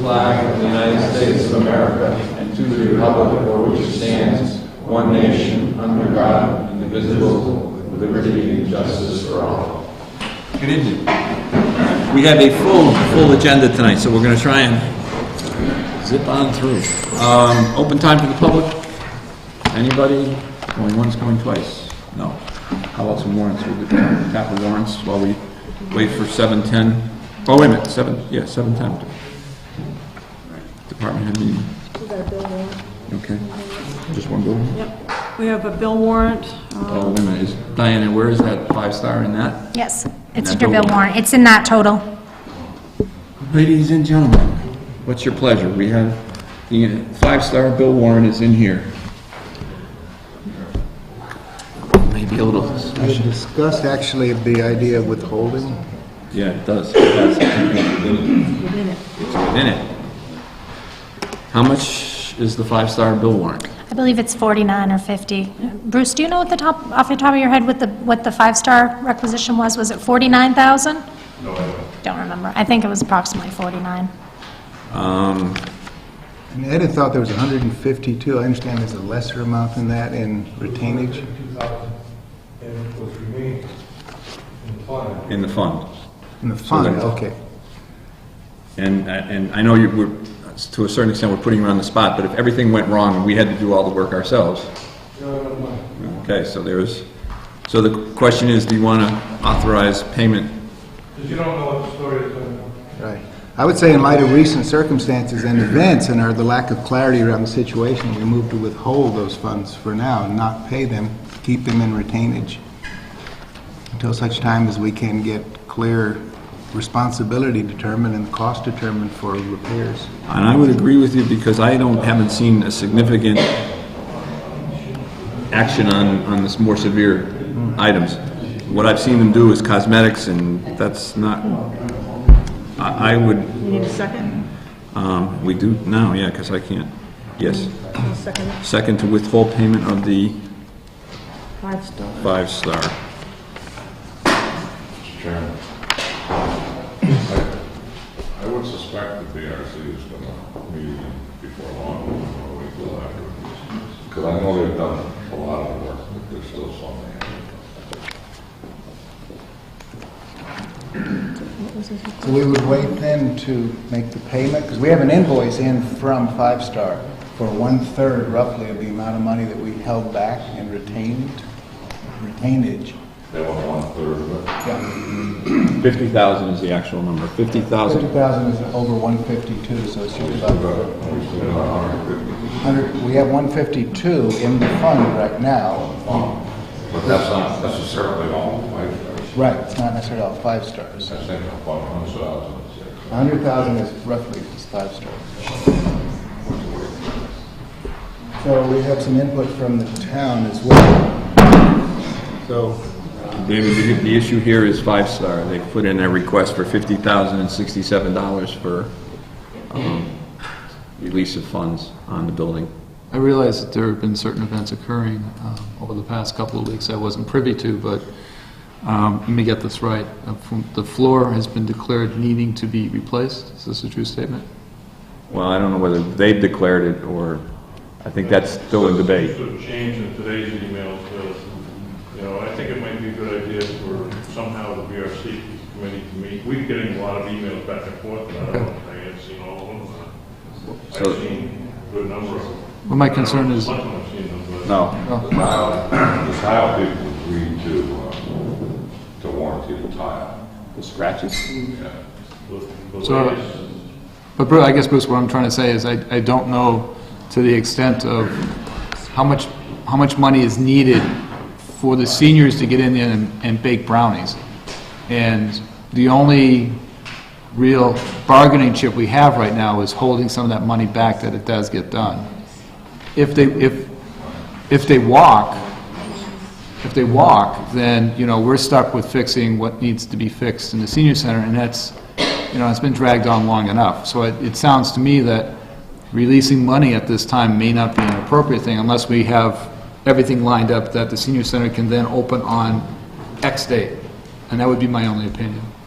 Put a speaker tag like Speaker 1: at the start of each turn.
Speaker 1: flag of the United States of America and to the republic for which it stands, one nation, under God, indivisible, with liberty and justice for all.
Speaker 2: Good evening. We have a full, full agenda tonight, so we're going to try and zip on through. Um, Open time for the public? Anybody? Going once, going twice? No. How about some warrants? We'll get- tap the warrants while we wait for 7:10. Oh, wait a minute, 7, yeah, 7:10. Department head meeting. Okay. Just one bill?
Speaker 3: Yep, we have a bill warrant. uh,
Speaker 2: Oh, wait a minute, is, Diana, where is that five-star in that?
Speaker 4: Yes,
Speaker 2: And
Speaker 4: it's
Speaker 2: that
Speaker 4: under bill
Speaker 2: bill warrant.
Speaker 4: warrant. It's in that total.
Speaker 2: Ladies and gentlemen, what's your pleasure? We have, the five-star Bill Warren is in here. Maybe a little,
Speaker 5: We had discussed actually the idea of withholding.
Speaker 2: yeah, it does. It does. It's within it. How much is the five-star Bill Warren?
Speaker 4: I believe it's 49 or 50. Bruce, do you know what the top, off the top of your head, what the, what the five-star requisition was? Was it 49,000? No. Don't remember. I think it was approximately 49.
Speaker 5: And Ed had thought there was 152. I understand there's a lesser amount than that in retainage.
Speaker 6: 2,000, and it was remaining in the fund.
Speaker 2: In the fund.
Speaker 5: In the fund,
Speaker 2: that's-
Speaker 5: okay.
Speaker 2: And, uh, and I know you, we're, to a certain extent, we're putting you on the spot, but if everything went wrong and we had to do all the work ourselves,
Speaker 6: No, no, no.
Speaker 2: okay, so there's, so the question is, do you want to authorize payment?
Speaker 6: Because you don't know what the story is going on.
Speaker 5: Right. I would say in light of recent circumstances and events and our, the lack of clarity around the situation, we move to withhold those funds for now and not pay them, keep them in retainage until such time as we can get clear responsibility determined and cost determined for repairs.
Speaker 2: And I would agree with you because I don't, haven't seen a significant action on, on this more severe items. What I've seen them do is cosmetics and that's not, I, I would,
Speaker 3: You need a second?
Speaker 2: um, we do now, yeah, because I can't, yes.
Speaker 3: A second,
Speaker 2: Second to withhold payment of the
Speaker 3: five star.
Speaker 2: five-star.
Speaker 7: Mr. Chairman, I I would suspect that the RC is going to meet before long, or we will after this. Because I know they've done a lot of work, but there's still some they haven't.
Speaker 5: So we would wait then to make the payment, because we have an invoice in from Five Star for one-third roughly of the amount of money that we held back and retained, retainage.
Speaker 7: They want one-third of it.
Speaker 5: Yeah,
Speaker 2: Fifty thousand is the actual number, fifty
Speaker 5: fifty
Speaker 2: thousand.
Speaker 5: thousand is over one fifty-two, so it's just about,
Speaker 7: We still got a hundred fifty.
Speaker 5: hundred, we have one fifty-two in the fund right now.
Speaker 7: But that's not necessarily all five stars.
Speaker 5: Right, it's not necessarily all Five Stars.
Speaker 7: I think about a hundred thousand.
Speaker 5: A hundred thousand is roughly just Five Stars. So we have some input from the town as well. So,
Speaker 2: David, the- the issue here is five-star. They put in a request for fifty thousand and sixty-seven dollars for um, release of funds on the building.
Speaker 8: I realize that there have been certain events occurring um, over the past couple of weeks I wasn't privy to, but um, let me get this right. Uh, from- The floor has been declared needing to be replaced. Is this a true statement?
Speaker 2: Well, I don't know whether they've declared it or, I think that's still in debate.
Speaker 6: Sort of change in today's emails, to, you know, I think it might be a good idea for somehow the BRC committee to meet. We're getting a lot of emails back and forth, and I don't know if I have seen all of them. I've
Speaker 2: So-
Speaker 6: seen a good number of them.
Speaker 8: Well, my concern is-
Speaker 6: I don't know if much of them I've seen them, but-
Speaker 2: No.
Speaker 7: The tile, the tile people agreed to, uh, to warranty the tile.
Speaker 2: The scratches?
Speaker 7: Yeah.
Speaker 6: The- the
Speaker 8: So-
Speaker 6: latest-
Speaker 8: But Bru I guess, Bruce, what I'm trying to say is I I don't know to the extent of how much, how much money is needed for the seniors to get in there and- and bake brownies. And the only real bargaining chip we have right now is holding some of that money back that it does get done. If they, if, if they walk, if they walk, then, you know, we're stuck with fixing what needs to be fixed in the senior center, and that's, you know, it's been dragged on long enough. So it, it sounds to me that releasing money at this time may not be an appropriate thing unless we have everything lined up that the senior center can then open on X date. And that would be my only opinion.